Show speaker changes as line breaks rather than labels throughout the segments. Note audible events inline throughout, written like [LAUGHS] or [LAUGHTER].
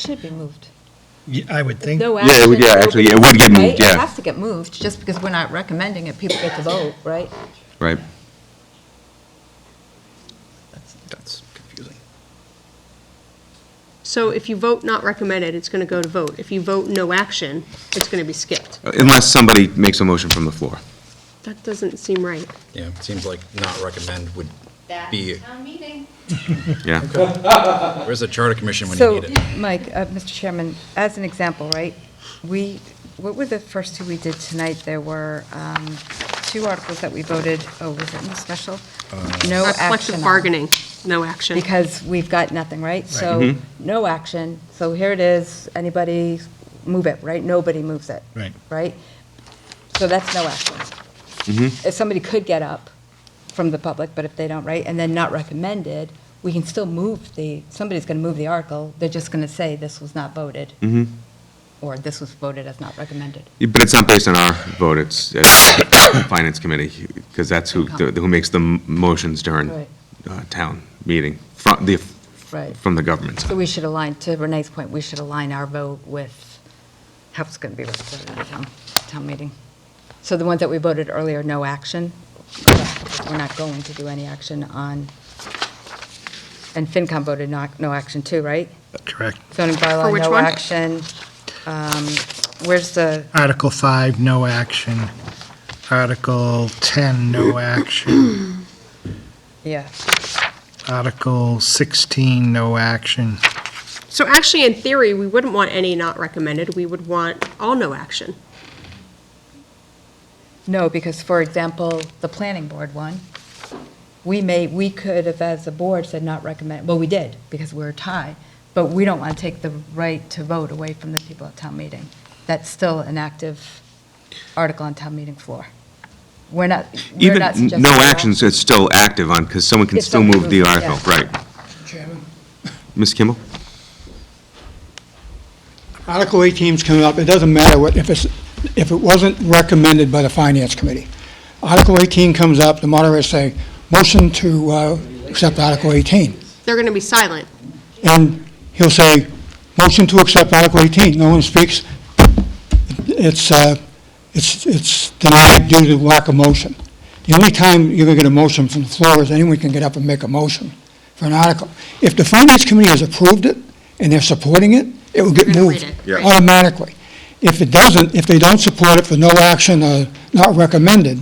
Should be moved.
Yeah, I would think,
No
Yeah, it
action.
would- yeah, actually, yeah, it would get
Right?
moved, yeah.
It has to get moved, just because we're not recommending it, people get to vote, right?
Right.
that's confusing.
So if you vote not recommended, it's going to go to vote. If you vote no action, it's going to be skipped.
Unless somebody makes a motion from the floor.
That doesn't seem right.
Yeah, it seems like not recommend would, Be-
That's town meeting.
Yeah.
where's the charter commission when you
So,
need it?
Mike, uh, Mr. Chairman, as an example, right, we, what were the first two we did tonight? There were um, two articles that we voted, oh, was it in the special?
Uh,
No
Our
action
Collective
on,
bargaining, no action.
Because we've got nothing, right? So, no action, so here it is, anybody move it, right? Nobody moves it.
Right.
Right? So that's no action. If somebody could get up from the public, but if they don't, right, and then not recommended, we can still move the, somebody's going to move the article, they're just going to say this was not voted. Or this was voted as not recommended.
But it's not based on our vote, it's uh, Finance Committee, because that's who, who makes the m- motions during
Right.
uh, town meeting, from the,
Right.
from the government.
So we should align, to Renee's point, we should align our vote with how it's going to be represented at the town, town meeting. So the ones that we voted earlier, no action, we're not going to do any action on, and FinCom voted not, no action too, right?
Correct.
Zoning
For
bylaw,
which
no
one?
action. Um, Where's the,
Article 5, no action. Article 10, no action.
yeah,
Article 16, no action.
So actually, in theory, we wouldn't want any not recommended. We would want all no action.
no, because, for example, the planning board one, we may, we could have, as a board, said not recommend, well, we did, because we were tied, but we don't want to take the right to vote away from the people at town meeting. That's still an active article on town meeting floor. We're not, we're
Even,
not suggesting.
no
at all.
actions, it's still active on, because someone can
If
still
someone
move the
moves it,
article, right. Ms. Kimball?
Article 18's coming up, it doesn't matter what, if it's, if it wasn't recommended by the Finance Committee. Article 18 comes up, the moderator say, motion to uh, accept Article 18.
They're going to be silent.
And he'll say, motion to accept Article 18, no one speaks. It's, uh, it's it's denied due to lack of motion. The only time you're going to get a motion from the floor is anyone can get up and make a motion for an article. If the Finance Committee has approved it and they're supporting it, it will get
They're gonna read
moved
it. Yeah.
automatically. If it doesn't, if they don't support it for no action or not recommended,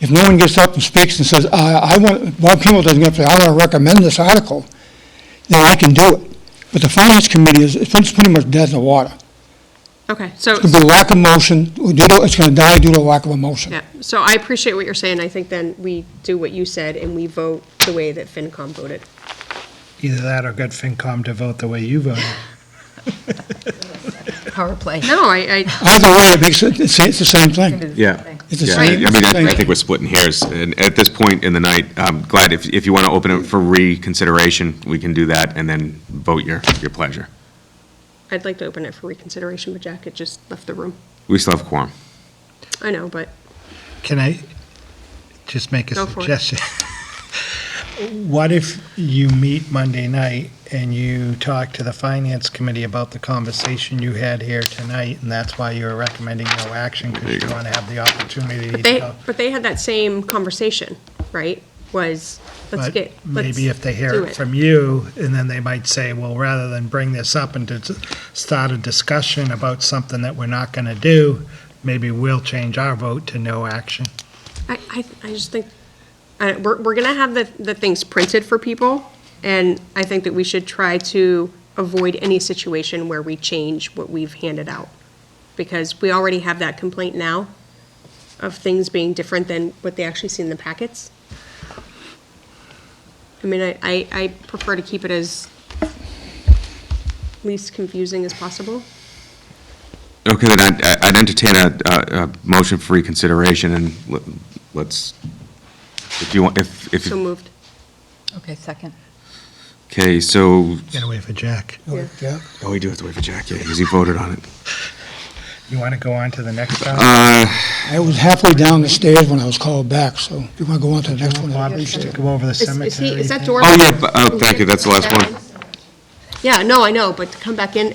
if no one gets up and speaks and says, I I want, Bob Kimball doesn't get up and say, I want to recommend this article, then I can do it. But the Finance Committee is, it's pretty much dead in the water.
Okay, so,
It's going to be lack of motion, due to- it's going to die due to lack of a motion.
yeah, so I appreciate what you're saying. I think then we do what you said, and we vote the way that FinCom voted.
Either that or get FinCom to vote the way you voted.
Power play.
No, I, I,
Either way, it makes, it- it's it's the same thing.
Yeah.
It's the
Yeah, I
same
I mean, I- I
thing.
think we're splitting hairs, and at this point in the night, I'm glad, if, if you want to open it for reconsideration, we can do that, and then vote your, your pleasure.
I'd like to open it for reconsideration, but Jack had just left the room.
We still have quorum.
I know, but
Can I just make a
Go for it.
suggestion? [LAUGHS] What if you meet Monday night and you talk to the Finance Committee about the conversation you had here tonight, and that's why you were recommending no action, because you want to have the opportunity to
They,
talk?
but they had that same conversation, right? Was, let's
But
get, let's
Maybe if they
do
hear it from you, and then they might say, well, rather than bring this up and to s- start a discussion about something that we're not going to do, maybe we'll change our vote to no action.
I, I, I just think, uh, we're, we're gonna have the, the things printed for people, and I think that we should try to avoid any situation where we change what we've handed out. Because we already have that complaint now of things being different than what they actually see in the packets. I mean, I, I, I prefer to keep it as least confusing as possible.
Okay, then I'd- I'd entertain a, a, a motion for reconsideration, and let- let's, if you want, if, if,
So moved.
Okay, second.
okay, so,
Gotta wait for Jack.
Yeah.
oh, we do have to wait for Jack, yeah, because he voted on it.
You want to go on to the next topic?
Uh,
I was halfway down the stairs when I was called back, so if you want to go on to the next one.
Bobby, should go over the
Is-
cemetery?
Is he, is that
thing?
uh,
door?
oh, yeah, b- oh, thank you, that's the last one.
Yeah, no, I know, but to come back in